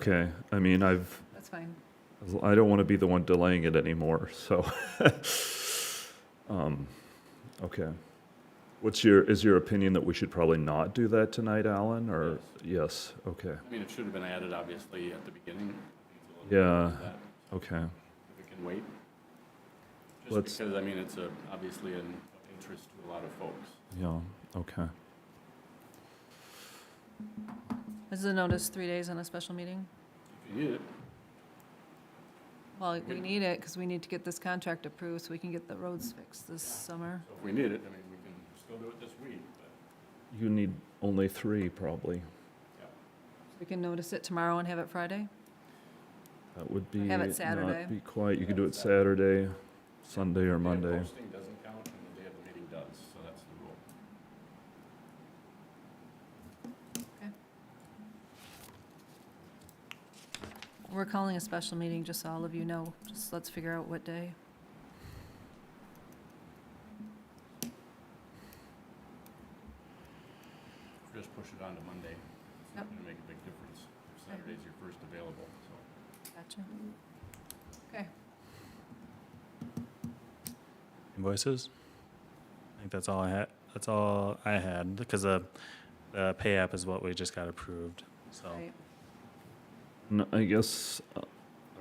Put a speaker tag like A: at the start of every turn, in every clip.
A: Okay, I mean, I've,
B: That's fine.
A: I don't want to be the one delaying it anymore, so. Um, Okay. What's your, is your opinion that we should probably not do that tonight, Alan, or, yes, okay,
C: I mean, it should have been added, obviously, at the beginning. I think it's a little
A: yeah,
C: bit that
A: okay.
C: If it can wait.
A: Let's-
C: Just because, I mean, it's a, obviously an interest to a lot of folks.
A: Yeah, okay.
B: Is the notice three days on a special meeting?
C: If you need it,
B: Well, we need it because we need to get this contract approved so we can get the roads fixed this summer.
C: so if we need it, I mean, we can still do it this week, but
A: You need only three, probably.
B: We can notice it tomorrow and have it Friday?
A: That would be.
B: have it
A: not
B: Saturday.
A: Be quiet, you could do it Saturday, Sunday or
C: the day of
A: Monday.
C: posting doesn't count and the day of the meeting does, so that's the rule.
B: We're calling a special meeting, just so all of you know. Just let's figure out what day.
C: Just push it on to Monday.
B: Yep.
C: It's not going to make a big difference. if Saturday's your first available, so.
B: Gotcha.
D: invoices. I think that's all I had. That's all I had because the, the pay app is what we just got approved. So
B: Right.
A: And I guess, uh,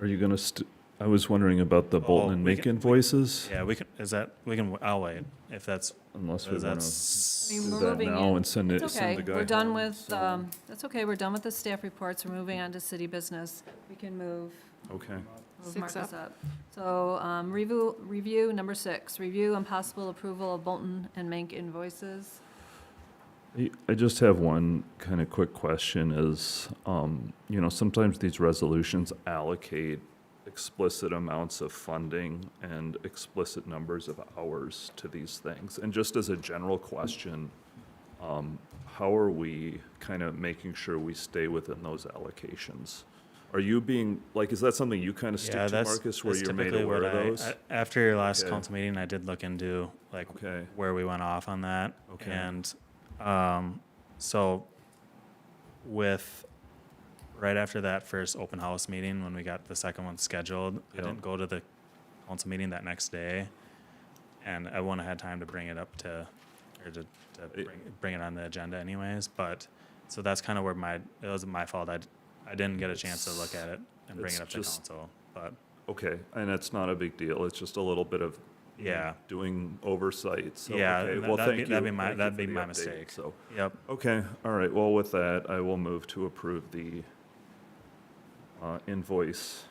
A: are you gonna, st- I was wondering about the Bolton
D: Oh,
A: and
D: we can-
A: Macon voices,
D: yeah, we can. Is that we can? I'll wait if that's.
A: unless we
D: If
A: wanna
D: that's
B: I mean,
A: do
B: we're
A: that
B: moving
A: now
B: it.
A: and send it,
B: It's okay.
A: send the guy.
B: We're done
A: home,
B: with,
A: so-
B: um, that's okay. We're done with the staff reports. We're moving on to city business. We can move
A: Okay,
B: Move
E: Six
B: Marcus up. So, um, review, review number six, review and possible approval of Bolton and Mank invoices.
A: I- I just have one kind of quick question is, um, you know, sometimes these resolutions allocate explicit amounts of funding and explicit numbers of hours to these things. And just as a general question, um, how are we kind of making sure we stay within those allocations? Are you being, like, is that something you kind of stick
D: yeah,
A: to,
D: that's,
A: Marcus, where
D: that's
A: you're made
D: typically
A: aware
D: what
A: of
D: I-
A: those?
D: I- after your last
A: Okay.
D: council meeting, I did look into like
A: Okay,
D: where we went off on that.
A: Okay.
D: And um, so with right after that first open house meeting, when we got the second one scheduled, I
A: Yeah.
D: didn't go to the council meeting that next day, and I wouldn't have had time to bring it up to or to, to
A: It-
D: bring, bring it on the agenda anyways. But so that's kind of where my it was my fault. I d- I didn't get a chance to look at it and bring
A: It's
D: it up to
A: just-
D: council, but
A: okay, and it's not a big deal, it's just a little bit of
D: yeah,
A: doing oversight, so,
D: Yeah,
A: okay,
D: and
A: well,
D: that'd be-
A: thank you.
D: that'd be my-
A: Thank you
D: that'd
A: for
D: be
A: the
D: my
A: update.
D: mistake.
A: So,
D: yep.
A: okay, all right, well, with that, I will move to approve the uh, invoice,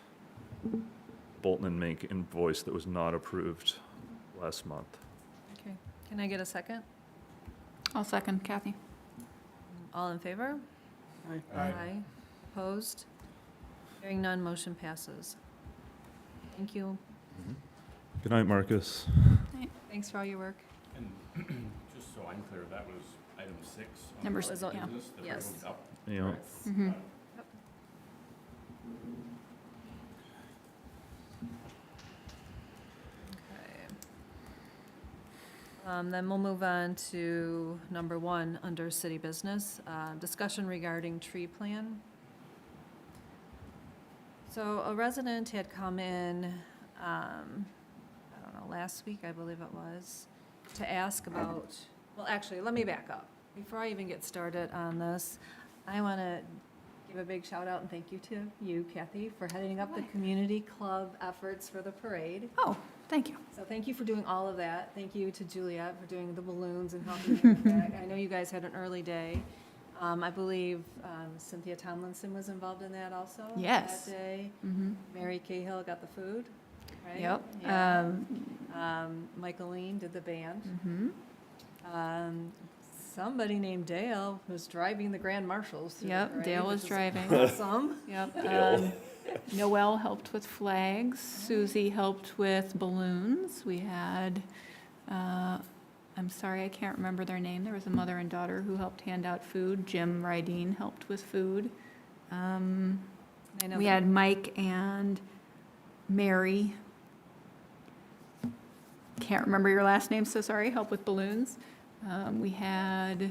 A: Bolton and Mink invoice that was not approved last month.
B: Okay. Can I get a second?
E: I'll second Kathy.
B: All in favor? Aye. Opposed? Hearing none, motion passes. Thank you.
A: Mm-hmm. Good night, Marcus.
B: Thanks for all your work.
C: And just so I'm clear, that was item six. on
E: Number
C: the
B: six,
C: business
B: yeah.
C: that we
B: Yes. Mm-hmm.
C: moved up. Uh,
A: Yeah,
E: Mhm.
B: Okay. Um, Then we'll move on to number one, under city business, uh, discussion regarding tree plan. So a resident had come in, um, I don't know, last week, I believe it was, to ask about, well, actually, let me back up. Before I even get started on this, I want to give a big shout out and thank you to you, Kathy, for heading up the
E: Why?
B: community club efforts for the parade.
E: Oh, thank you.
B: So thank you for doing all of that. Thank you to Juliet for doing the balloons and helping me with that. I know you guys had an early day. Um, I believe um, Cynthia Tomlinson was involved in that also.
E: Yes.
B: That day.
E: Mhm.
B: Mary Cahill got the food, right?
E: Yep.
B: Yeah. Mm-hmm.
E: Um,
B: Um, Michael Lean did the band.
E: mhm.
B: Um, Somebody named Dale was driving the Grand Marshals. through the
E: Yep,
B: parade,
E: Dale was
B: which is
E: driving.
B: Awesome.
E: Yep.
A: Dale.
E: um, Noel helped with flags. Susie helped with balloons. We had, uh, I'm sorry, I can't remember their name. There was a mother and daughter who helped hand out food. Jim Rydeen helped with food. Um,
B: I know
E: We
B: that-
E: had Mike and Mary. Can't remember your last name, so sorry, help with balloons. Um, we had,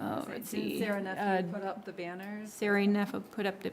E: oh, let's
B: Didn't
E: see.
B: Sarah
E: uh,
B: Nephew put up the banners.
E: Sarah Neff put up the